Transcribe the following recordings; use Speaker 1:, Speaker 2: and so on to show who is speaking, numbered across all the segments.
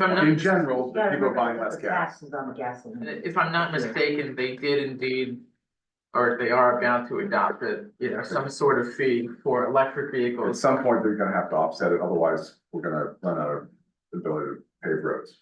Speaker 1: I'm
Speaker 2: In
Speaker 1: not,
Speaker 2: general,
Speaker 3: Yeah,
Speaker 2: people are buying
Speaker 3: remember
Speaker 2: less
Speaker 3: the
Speaker 2: gas.
Speaker 3: Taxes on the gasoline.
Speaker 1: if I'm not mistaken, they did indeed. Or they are bound to adopt it, you know, some sort of fee for electric
Speaker 2: At
Speaker 1: vehicles.
Speaker 2: some point, they're gonna have to offset it, otherwise we're gonna run out of ability to pave roads.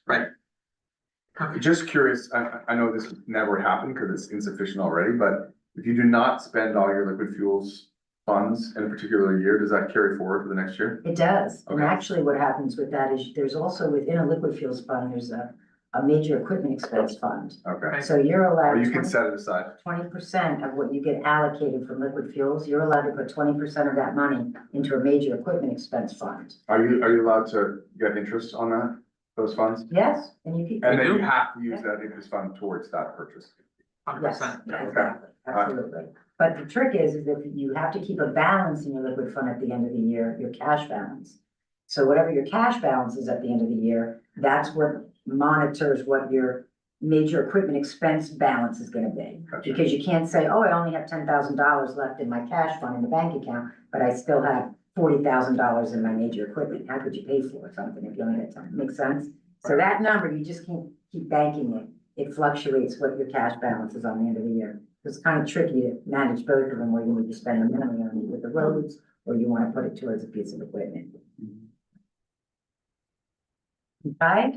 Speaker 2: Just curious, I, I- I know this never happened because it's insufficient already, but if you do not spend all your liquid fuels funds in a particular year, does that carry forward for the next year?
Speaker 3: It does, and
Speaker 2: Okay.
Speaker 3: actually what happens with that is there's also within a liquid fuels fund, there's a, a major equipment expense fund.
Speaker 2: Okay,
Speaker 3: So you're
Speaker 2: or
Speaker 3: allowed
Speaker 2: you can
Speaker 3: twenty
Speaker 2: set it aside.
Speaker 3: percent of what you get allocated from liquid fuels, you're allowed to put twenty percent of that money into a major equipment expense fund.
Speaker 2: Are you, are you allowed to get interest on that, those funds?
Speaker 3: Yes, and you keep.
Speaker 2: And then
Speaker 1: do.
Speaker 2: you have to use that interest fund towards that purchase.
Speaker 1: Hundred
Speaker 3: Yes,
Speaker 1: percent.
Speaker 2: Okay.
Speaker 3: exactly, absolutely. But the trick is, is that you have to keep a balance in your liquid fund at the end of the year, your cash balance. So whatever your cash balance is at the end of the year, that's what monitors what your major equipment expense balance is gonna be.
Speaker 2: Gotcha.
Speaker 3: Because you can't say, oh, I only have ten thousand dollars left in my cash fund in the bank account, but I still have forty thousand dollars in my major equipment. How could you pay for something if you only had ten? Makes sense? So that number, you just can't keep banking it it fluctuates what your cash balance is on the end of the year. It's kind of tricky to manage both of them, where you need to spend the money on either the roads, or you want to put it towards a piece of equipment. Right?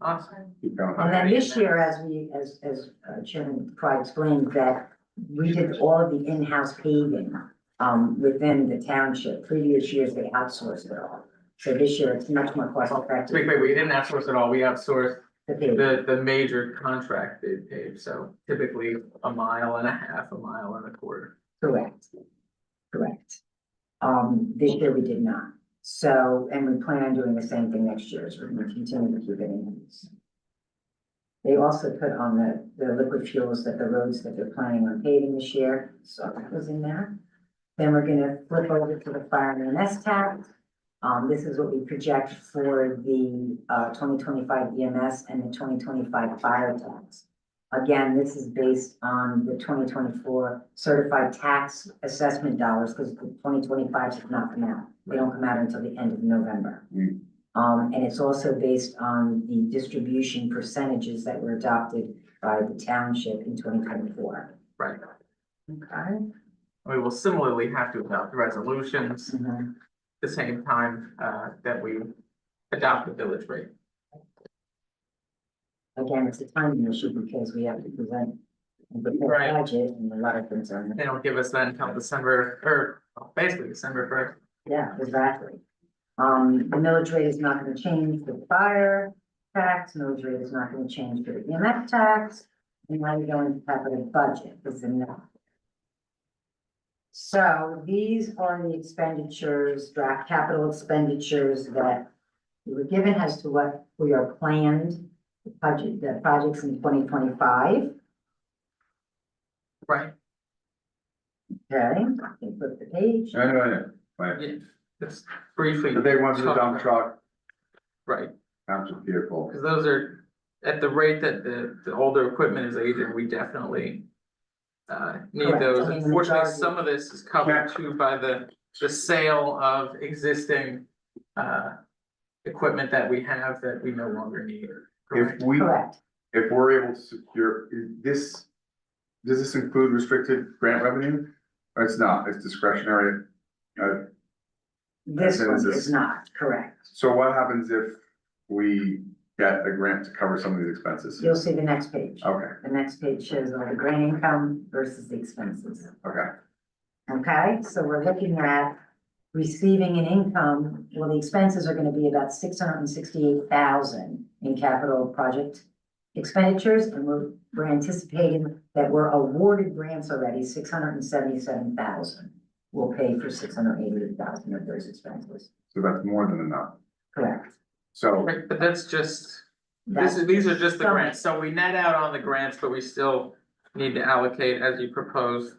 Speaker 1: Awesome.
Speaker 2: Keep going.
Speaker 3: And then this year, as we, as, as uh, Chairman Pry explained, that we did all of the in-house paving um, within the township. Previous years, they outsourced it all. So this year, it's much more cost
Speaker 1: Wait,
Speaker 3: effective
Speaker 1: wait, we didn't outsource at all. We outsourced
Speaker 3: to pave.
Speaker 1: the, the major contract they paid, so typically a mile and a half, a mile and a quarter.
Speaker 3: Correct. Correct. Um, this year we did not. So, and we plan on doing the same thing next year, so we're gonna continue to keep it in use. They also put on the, the liquid fuels that the roads that they're planning on paving this year, so that was in there. Then we're gonna flip over to the fire and EMS tax. Um, this is what we project for the, uh, twenty twenty-five EMS and the twenty twenty-five fire tax. Again, this is based on the twenty twenty-four certified tax assessment dollars, because the twenty twenty-five should not come out. They don't come out until the end of November.
Speaker 2: Hmm.
Speaker 3: Um, and it's also based on the distribution percentages that were adopted by the township in twenty twenty-four.
Speaker 1: Right.
Speaker 3: Okay.
Speaker 1: We will similarly have to adopt resolutions
Speaker 3: Mhm.
Speaker 1: the same time, uh, that we adopt the village rate.
Speaker 3: Again, it's a timing issue because we have to present and prepare
Speaker 1: Right.
Speaker 3: a budget and a lot of things are,
Speaker 1: They don't give us that until December, or well, basically December first.
Speaker 3: yeah, exactly. Um, the millage rate is not gonna change for the fire tax, millage rate is not gonna change for the EMF tax. And now you're going to capital budget is the next. So these are the expenditures, draft capital expenditures that we were given as to what we are planned, the budget, the projects in twenty twenty-five.
Speaker 1: Right.
Speaker 3: Okay, I can flip the page.
Speaker 2: I know, I know, right.
Speaker 1: Yeah, just briefly,
Speaker 2: The big ones are the dump truck,
Speaker 1: right,
Speaker 2: township vehicle.
Speaker 1: because those are, at the rate that the, the older equipment is aging, we definitely. Uh, need
Speaker 3: Correct, I
Speaker 1: those,
Speaker 3: mean, the
Speaker 1: unfortunately,
Speaker 3: majority-
Speaker 1: some of this is covered too by the, the sale of existing, uh. Equipment that we have that we no longer need,
Speaker 2: If
Speaker 1: correct?
Speaker 2: we,
Speaker 3: Correct.
Speaker 2: if we're able to secure, is this, does this include restricted grant revenue? Or It's not, it's discretionary. Uh,
Speaker 3: This
Speaker 2: Then
Speaker 3: one
Speaker 2: this-
Speaker 3: is not correct.
Speaker 2: so what happens if we get a grant to cover some of these expenses?
Speaker 3: You'll see the next page.
Speaker 2: Okay,
Speaker 3: The next page shows all the grant income versus the expenses.
Speaker 2: okay,
Speaker 3: Okay, so we're looking at receiving an income, well, the expenses are gonna be about six hundred and sixty-eight thousand in capital project expenditures, and we're, we're anticipating that we're awarded grants already, six hundred and seventy-seven thousand. We'll pay for six hundred and eighty thousand of those expenses,
Speaker 2: so that's more than enough.
Speaker 3: correct?
Speaker 2: So,
Speaker 1: Right, but that's just, this
Speaker 3: That's-
Speaker 1: is, these are just the
Speaker 3: Some-
Speaker 1: grants, so we net out on the grants, but we still need to allocate, as you proposed.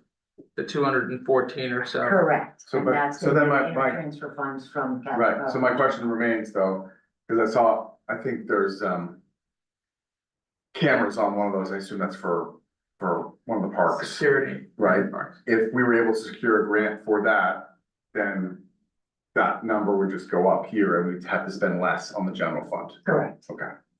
Speaker 1: The two hundred and fourteen or so.
Speaker 3: Correct.
Speaker 2: So,
Speaker 3: And
Speaker 2: but-
Speaker 3: that's
Speaker 2: so
Speaker 3: gonna
Speaker 2: then
Speaker 3: be
Speaker 2: my- my-
Speaker 3: Transfer funds from. capital
Speaker 2: right, so my question remains though, because I saw, I think there's, um, cameras on one of those, I assume that's for, for one of the parks.
Speaker 1: Security.
Speaker 2: Right.
Speaker 1: Parks.
Speaker 2: if we were able to secure a grant for that, then that number would just go up here and we'd have to spend less on the general fund.
Speaker 3: Correct.
Speaker 2: Okay.